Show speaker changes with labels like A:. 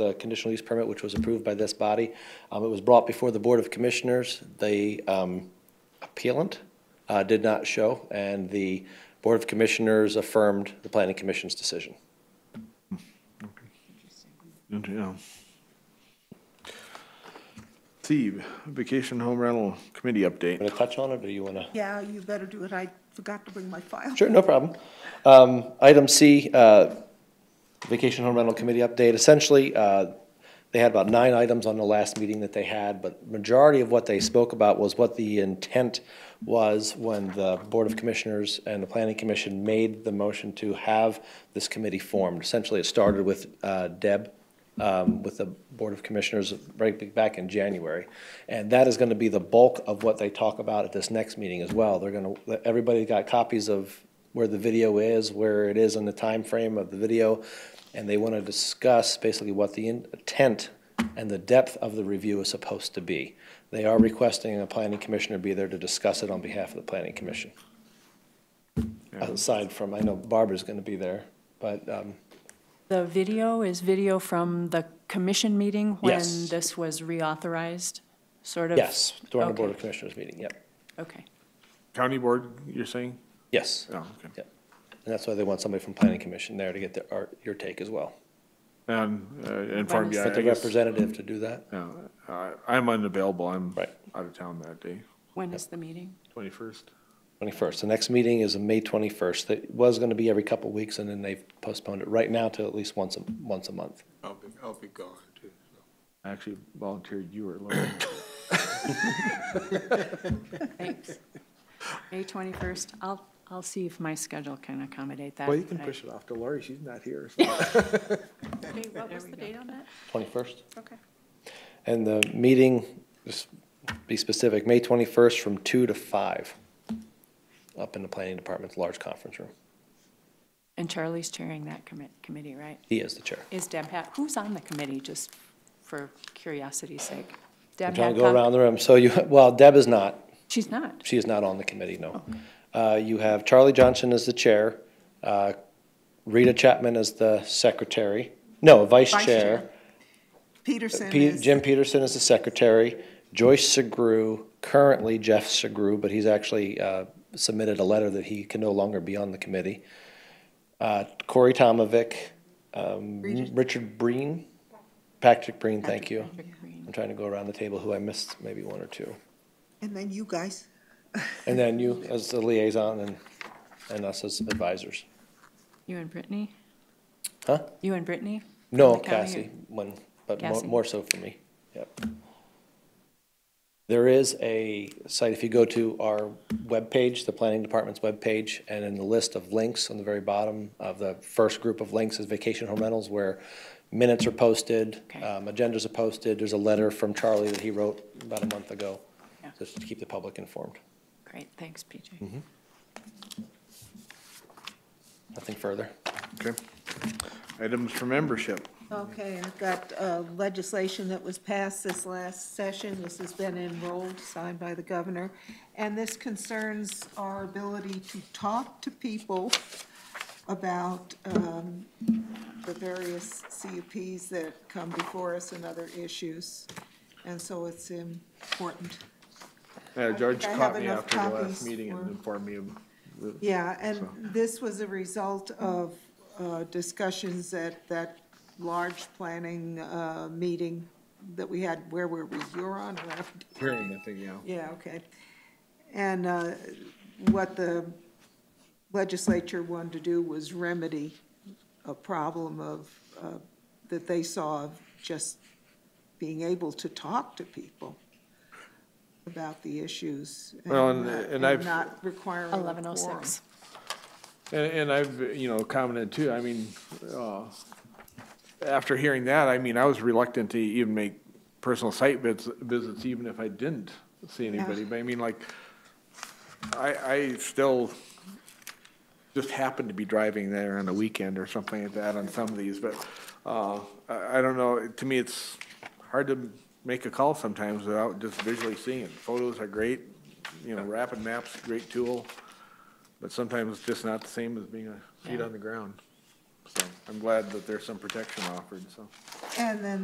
A: the conditional use permit, which was approved by this body. Um, It was brought before the Board of Commissioners. The um, appellant uh, did not show, and the Board of Commissioners affirmed the Planning Commission's decision.
B: Yeah. Steve, vacation home rental committee update.
A: Want to touch on it, or you want to?
C: Yeah, you better do it. I forgot to bring my file.
A: Sure, no problem. Um, Item C, uh, Vacation Home Rental Committee update. Essentially, uh, they had about nine items on the last meeting that they had, but majority of what they spoke about was what the intent was when the Board of Commissioners and the Planning Commission made the motion to have this committee formed. Essentially, it started with uh, Deb um, with the Board of Commissioners right back in January. And that is going to be the bulk of what they talk about at this next meeting as well. They're going to, everybody got copies of where the video is, where it is in the time frame of the video, and they want to discuss basically what the intent and the depth of the review is supposed to be. They are requesting a planning commissioner be there to discuss it on behalf of the planning commission. Aside from, I know Barbara's going to be there, but um,
D: The video is video from the commission meeting when
A: Yes.
D: this was reauthorized, sort of?
A: yes, during the Board of
D: Okay,
A: Commissioners meeting, yep,
D: Okay.
B: County board, you're saying?
A: yes.
B: Oh, okay.
A: Yep. And that's why they want somebody from planning commission there to get their, our- your take as well.
B: And, uh, and farm,
D: But
B: yeah,
A: But the
B: I guess,
A: representative to do that,
B: yeah, I- I'm unavailable. I'm
A: Right.
B: out of town that day,
D: When is the meeting?
B: twenty-first.
A: 21st. The next meeting is May 21st. That was going to be every couple of weeks, and then they've postponed it right now to at least once, a once a month.
E: I'll be, I'll be gone too.
B: I actually volunteered you were looking.
D: Thanks. May 21st. I'll, I'll see if my schedule can accommodate that.
F: Well, you can
D: I-
F: push it off to Lori, she's not here. so-
D: What was the date on that?
A: 21st?
C: Okay.
A: And the meeting, just be specific, May 21st from 2 to 5, up in the planning department's large conference room.
D: And Charlie's chairing that commit, committee, right?
A: He is the chair.
D: Is Deb Hat, who's on the committee, just for curiosity's sake?
A: I'm
D: Deb
A: trying to go
D: Hadcock?
A: around the room. So you, well, Deb is not.
D: She's not.
A: She is not on the committee, no. Uh, You have Charlie Johnson as the chair, uh, Rita Chapman as the secretary, no, vice
C: Vice
A: chair.
C: chair. Peterson
A: Pe-
C: is,
A: uh, Jim Peterson is the secretary, Joyce Segru, currently Jeff Segru, but he's actually uh, submitted a letter that he can no longer be on the committee. Uh, Corey Tomovic, um, Richard Breen, Patrick Breen, thank you.
D: Patrick Green.
A: I'm trying to go around the table who I missed, maybe one or two.
C: and then you guys.
A: And then you as the liaison and, and us as advisors.
D: You and Brittany?
A: Huh?
D: You and Brittany? from
A: No,
D: the county?
A: Cassie, one, but more,
D: Cassie.
A: more so for me, yep. There is a site, if you go to our webpage, the planning department's webpage, and in the list of links on the very bottom of the first group of links is vacation home rentals where minutes are posted,
D: Okay.
A: um, agendas are posted, there's a letter from Charlie that he wrote about a month ago,
D: Yeah.
A: just to keep the public informed.
D: Great, thanks, PJ.
A: Nothing further.
B: Okay. Items for membership.
C: Okay, I've got uh, legislation that was passed this last session. This has been enrolled, signed by the governor. And this concerns our ability to talk to people about um, the various CUPs that come before us and other issues. And so it's important.
B: Yeah, George
C: think I
B: caught
C: have
B: me
C: enough
B: after the
C: copies
B: last meeting and
C: for-
B: informed me of the
C: Yeah, and
B: So-
C: this was a result of uh, discussions at that large planning uh, meeting that we had, where were we, Huron or after?
B: hearing, I think, yeah.
C: Yeah, okay. And uh, what the legislature wanted to do was remedy a problem of, uh, that they saw of just being able to talk to people about the issues.
B: Well, and-
C: not-
B: and I've-
C: not requiring a quorum.
D: 1106.
B: And, and I've, you know, commented too, I mean, uh, after hearing that, I mean, I was reluctant to even make personal site visits, visits even if I didn't see anybody, but I mean, like, I, I still just happened to be driving there on a weekend or something like that on some of these, but, uh, I, I don't know, to me, it's hard to make a call sometimes without just visually seeing it. Photos are great, you know, rapid maps, great tool. But sometimes it's just not the same as being a feet
D: Yeah.
B: on the ground. So I'm glad that there's some protection offered, so.
C: And then